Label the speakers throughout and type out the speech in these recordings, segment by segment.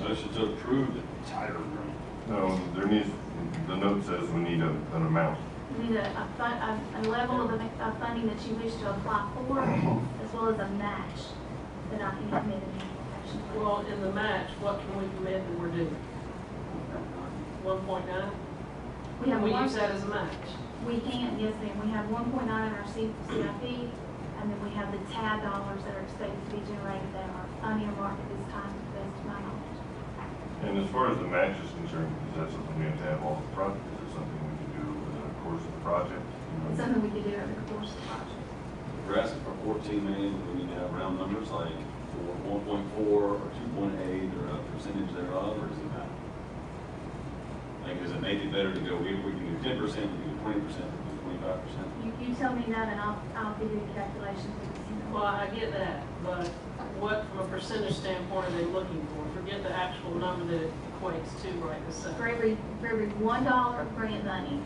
Speaker 1: motion to approve the tire agreement.
Speaker 2: No, there needs, the note says we need a, an amount.
Speaker 3: You need a, a fun, a, a level of, am- of funding that you wish to apply for, as well as a match that I can commit in the action plan.
Speaker 4: Well, in the match, what can we commit that we're doing? One point nine?
Speaker 3: We have
Speaker 4: We
Speaker 3: one-
Speaker 4: use that as a match.
Speaker 3: We can, yes, ma'am, we have one point nine in our C- CIP, and then we have the TAD dollars that are expected to be generated that are unearmarked at this time, to the best of my knowledge.
Speaker 2: And as far as the match is concerned, is that something we have to have all the projects? Is it something we can do over the course of the project?
Speaker 3: It's something we could do over the course of the project.
Speaker 1: We're asking for fourteen million, we need to have round numbers like for one point four or two point eight or a percentage thereof, or does it matter? Like, does it make it better to go, we, we can do ten percent, we can do twenty percent, we can do twenty-five percent?
Speaker 3: You, you tell me that, and I'll, I'll give you the calculations, you know.
Speaker 4: Well, I get that, but what, from a percentage standpoint, are they looking for? Forget the actual number that it equates to right this
Speaker 3: For
Speaker 4: second.
Speaker 3: every, for every one dollar of grant money,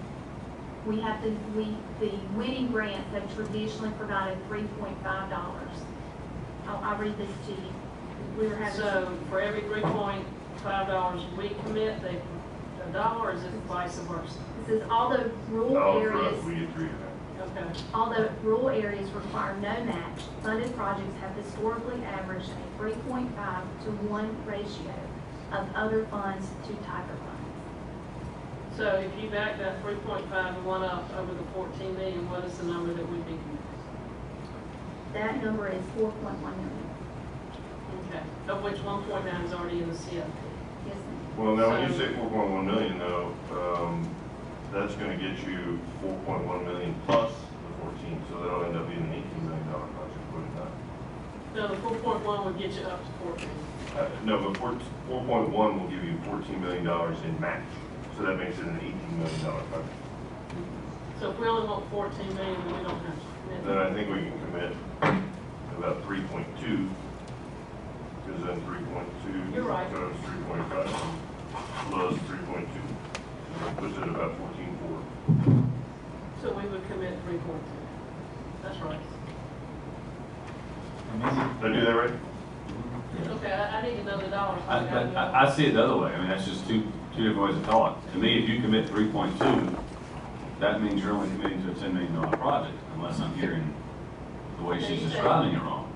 Speaker 3: we have to, we, the winning grants have traditionally provided three point five dollars. I'll, I'll read this to you. We were having.
Speaker 4: So for every three point five dollars we commit, they, a dollar is it vice versa?
Speaker 3: This is all the rural
Speaker 2: Oh, for us,
Speaker 3: areas,
Speaker 2: we get three of that.
Speaker 4: Okay.
Speaker 3: all the rural areas require no match. Funded projects have historically averaged a three point five to one ratio of other funds to Tiger funds.
Speaker 4: So if you back that three point five and one up over the fourteen million, what is the number that would be committed?
Speaker 3: That number is four point one million.
Speaker 4: Okay, of which one point nine is already in the CIP.
Speaker 3: Yes, ma'am.
Speaker 2: Well, now, when you
Speaker 4: So-
Speaker 2: say four point one million though, um, that's gonna get you four point one million plus the fourteen, so that'll end up being an eighteen million dollar project, wouldn't it? not?
Speaker 4: No, the four point one would get you up to fourteen.
Speaker 2: Uh, No, but four, four point one will give you fourteen million dollars in match, so that makes it an eighteen million dollar project.
Speaker 4: So if we only want fourteen million, we don't have to
Speaker 2: Then
Speaker 4: commit.
Speaker 2: I think we can commit about three point two, because then three point two.
Speaker 4: You're right.
Speaker 2: Times three point five plus three point two, puts it about fourteen four.
Speaker 4: So we would commit three point two. That's right.
Speaker 2: Did I do that right?
Speaker 4: Okay, I, I need to know the dollars.
Speaker 5: I, but I, I see it the other way, I mean, that's just two, two different ways of thought. To me, if you commit three point two, that means you're only committing to a ten million dollar project, unless I'm hearing the way she's describing it wrong.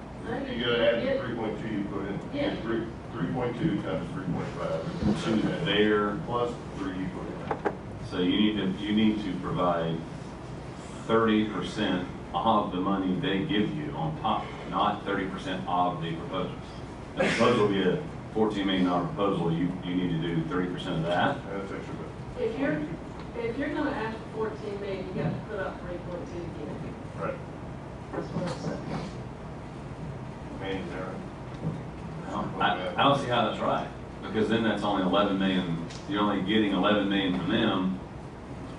Speaker 2: You gotta add the three point two you put in.
Speaker 4: Yeah.
Speaker 2: Three, three point two times three point five.
Speaker 5: Two there,
Speaker 2: Plus three you put in.
Speaker 5: so you need to, you need to provide thirty percent of the money they give you on top, not thirty percent of the proposal. The proposal will be a fourteen million dollar proposal, you, you need to do thirty percent of that,
Speaker 2: That's extra.
Speaker 4: If you're, if you're gonna ask for fourteen million, you got to put up three point two again.
Speaker 2: Right.
Speaker 4: That's what I'm saying.
Speaker 2: Manny's there.
Speaker 5: I, I don't see how that's right, because then that's only eleven million, you're only getting eleven million from them.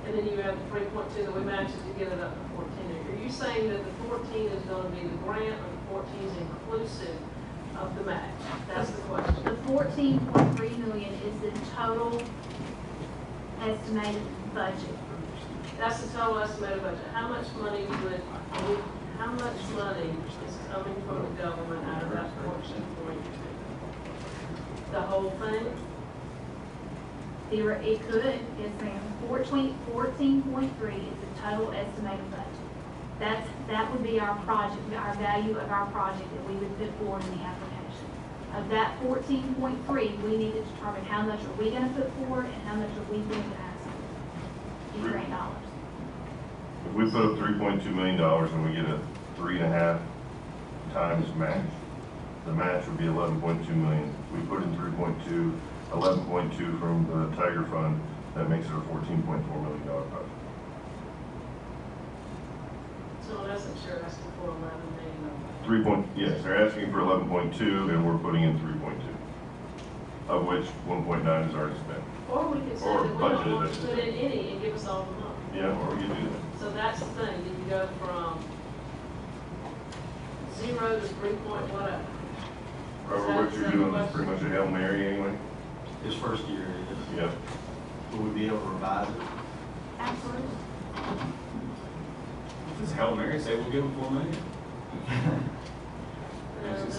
Speaker 4: And then you add the three point two that we matched to get it up to fourteen. Are you saying that the fourteen is gonna be the grant or the fourteen is inclusive of the match? That's the question.
Speaker 3: The fourteen point three million is the total estimated budget.
Speaker 4: That's the total estimated budget. How much money would, how much money is coming from the government out of that fourteen point two? The whole thing?
Speaker 3: There, it could, yes ma'am, fourteen, fourteen point three is the total estimated budget. That's, that would be our project, our value of our project that we would put forward in the application. Of that fourteen point three, we need to determine how much are we gonna put forward and how much are we going to ask in grant dollars.
Speaker 2: If we put up three point two million dollars and we get a three and a half times match, the match would be eleven point two million. We put in 3.2, 11.2 from the Tiger Fund, that makes it a fourteen point four million dollar project.
Speaker 4: So that's not sure that's the four eleven million. dollars.
Speaker 2: Three point, yes, they're asking for eleven point two and we're putting in three point two, of which one point nine is already spent.
Speaker 4: Or we could say
Speaker 2: Or
Speaker 4: that we don't
Speaker 2: budgeted
Speaker 4: want to
Speaker 2: it.
Speaker 4: put in any and give us all the money.
Speaker 2: Yeah, or we could do that.
Speaker 4: So that's the thing, you can go from zero to three point whatever.
Speaker 2: Robert, what you're doing is pretty much a Hail Mary anyway.
Speaker 6: This first year, it
Speaker 2: Yeah.
Speaker 6: is. Will we be able to revise it?
Speaker 3: Absolutely.
Speaker 5: Does Hail Mary say we'll give them four million?
Speaker 4: And